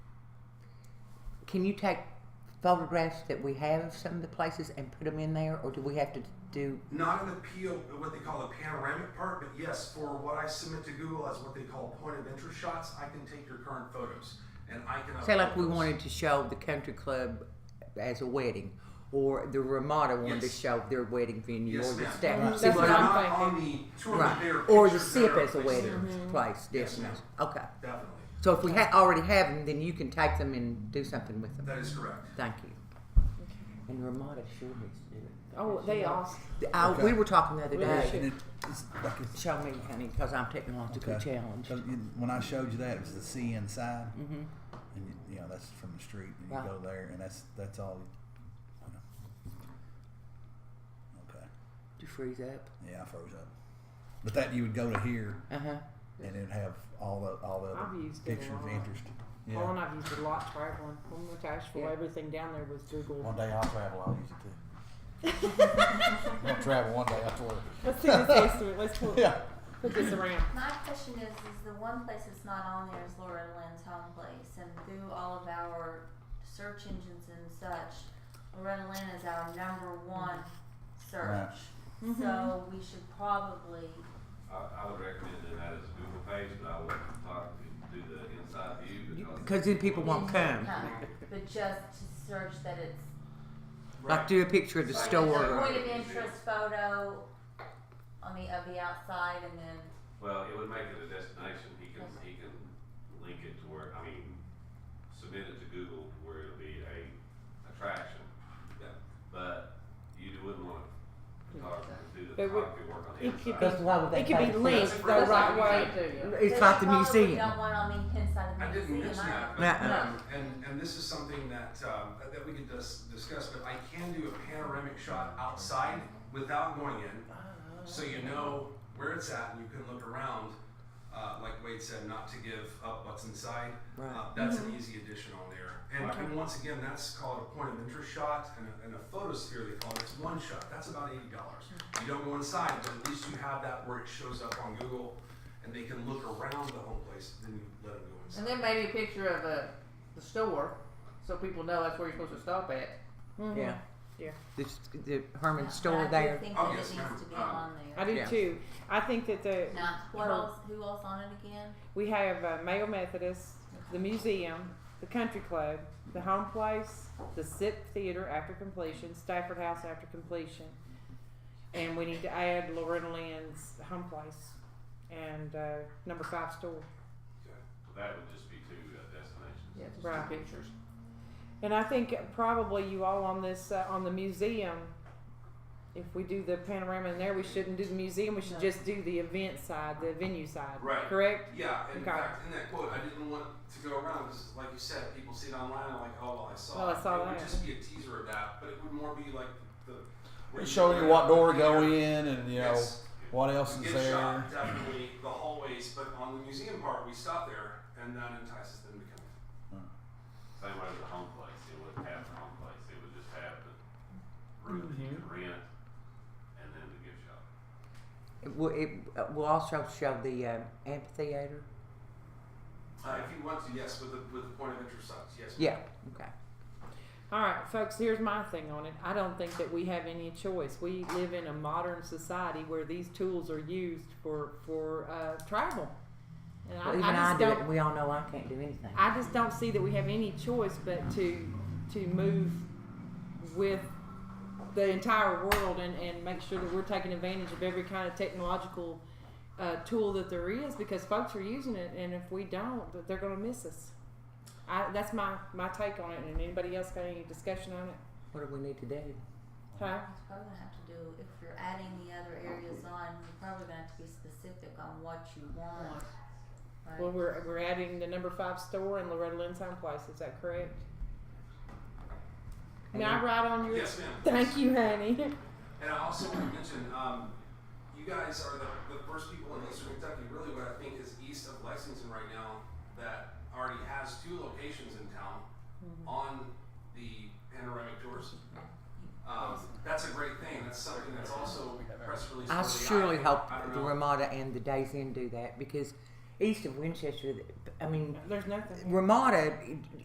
Can you take photographs that we have of some of the places and put them in there, or do we have to do? Not an appeal, what they call a panoramic part, but yes, for what I submit to Google as what they call point of interest shots, I can take your current photos and I can. Say like upload we those. wanted to show the country club as a wedding, or the Ramada wanted to Yes. show their wedding venue, Yes, or the ma'am. staff. Mhm, See They're what That's what I'm- I'm not on the tour, but they're right? Or the pictured SIP there, as a placed wedding there. place, Yes, definitely. Okay. Definitely, So if we ha- already have them, then you can take them and do something with them. that is correct. Thank you. And Ramada sure needs to do it. Oh, they all. I, Okay. We were talking the other We day. should- And it, it's like it's Show me, honey, because I'm technologically Okay. challenged. So you- When I showed you that, it was the sea inside, mm-hmm. and you, you know that's from the street, and you Right. go there, and that's that's all. You know. Okay, You freeze up. yeah, I froze up. But that you would go to here, Uh huh. and it'd have all the all the other I've used it a pictures of lot. interest. Yeah. Well, and I've used it a lot traveling. When we went to Asheville, Yeah. everything down there was Google. One day I'll travel. I'll use it too. I'm gonna travel one day. I swear. Let's see this estimate. Let's put, Yeah. put this around. My question is, is the one place that's not on there is Laura Lynn's home place, and through all of our search engines and such, Loretta Lynn is our number one search. So we should probably, I, I would recommend doing that as a Google page, but I wouldn't talk, do the inside view Because then people won't come. uh, but just to search that it's. Like do a picture of the Right. store. There's a or- point of interest photo on the, of the outside, and then, Well, it would make it a destination, he can, he can link it to where, I mean, submit it to Google where it'll be a attraction. But you wouldn't want to talk, do the But we- photography work on the it could inside. be- That's why would they It could take be linked the That's right way. like- It's but like the you probably museum. don't want on the inside of the I didn't museum mention that, either. but, Uh-uh. um, and, and this is something that, um, that we could dis- discuss, but I can do a panoramic shot outside without going in, so you know where it's at, and you can look around, uh, like Wade said, not to give up what's inside. Uh, Right. That's an easy addition on there, and, and once again, that's called a point of interest shot, and a, and a photosphere, they call it, it's one shot, that's about eighty dollars. You don't go inside, but at least you have that where it shows up on Google, and they can look around the home place, then you let them go inside. And then maybe a picture of a, the store, so people know that's where you're supposed to stop at. Mm-hmm. Yeah. Yeah. The, the Herman I store do there. think Oh, that it yes, ma'am. needs to be Um, on there. I do Yeah. too. I think that the Now, what Her- else? Who else on it again? we have uh, Mayo Methodist, the museum, the country club, the home place, the SIP theater after completion, Stafford House after completion, and we need to add Loretta Lynn's home place and uh, number five store. That would just be two uh, destinations. Yeah, just Right. two pictures. And I think probably you all on this, uh, on the museum, if we do the panorama in there, we shouldn't do the museum, we should just do the event side, the venue side, Right. correct? Yeah, and in Okay. fact, in that quote, I didn't want to go around because, like you said, people see it online and like, oh, well, I saw Well, I it. saw it would that. just be a teaser of that, but it would more be like the. where We show you what door to go in, and you know Yes. what else We is get there. shot, definitely the hallways, but on the museum part, we stop there, and that entices them to come. Same way with the home place, it wouldn't have the home place, it would just have the room that you could rent and then the gift shop. It will, it uh, will also show the um, amphitheater. Uh, if you want to, yes, with the with the point of interest sites, yes. Yeah. Okay. All right, folks, here's my thing on it. I don't think that we have any choice. We live in a modern society where these tools are used for, for uh, travel. And Well, even I, I, I just do don't, it. and We all know I can't do anything. I just don't see that we have any choice but to to move with the entire world and, and make sure that we're taking advantage of every kind of technological uh, tool that there is because folks are using it and if we don't th- they're going to miss us I, that's my, my take on it and anybody else got any discussion on it what do we need to do? huh? It's probably gonna have to do if you're adding the other areas on. You're probably gonna have to be specific on what you want. Right? well we're, we're adding the number five store and Loretta Lynn's home place is that correct can I write on your Yes, ma'am. thank you honey And I also want to mention, um, you guys are the, the first people in Eastern Kentucky, really what I think is east of Lexington right now, that already has two locations in town on the panoramic tours. Um, that's a great thing. That's something that's also press release. I worthy. surely I, hope I don't the know. Ramada and the Days Inn do that because east of Winchester, I mean, there's nothing Ramada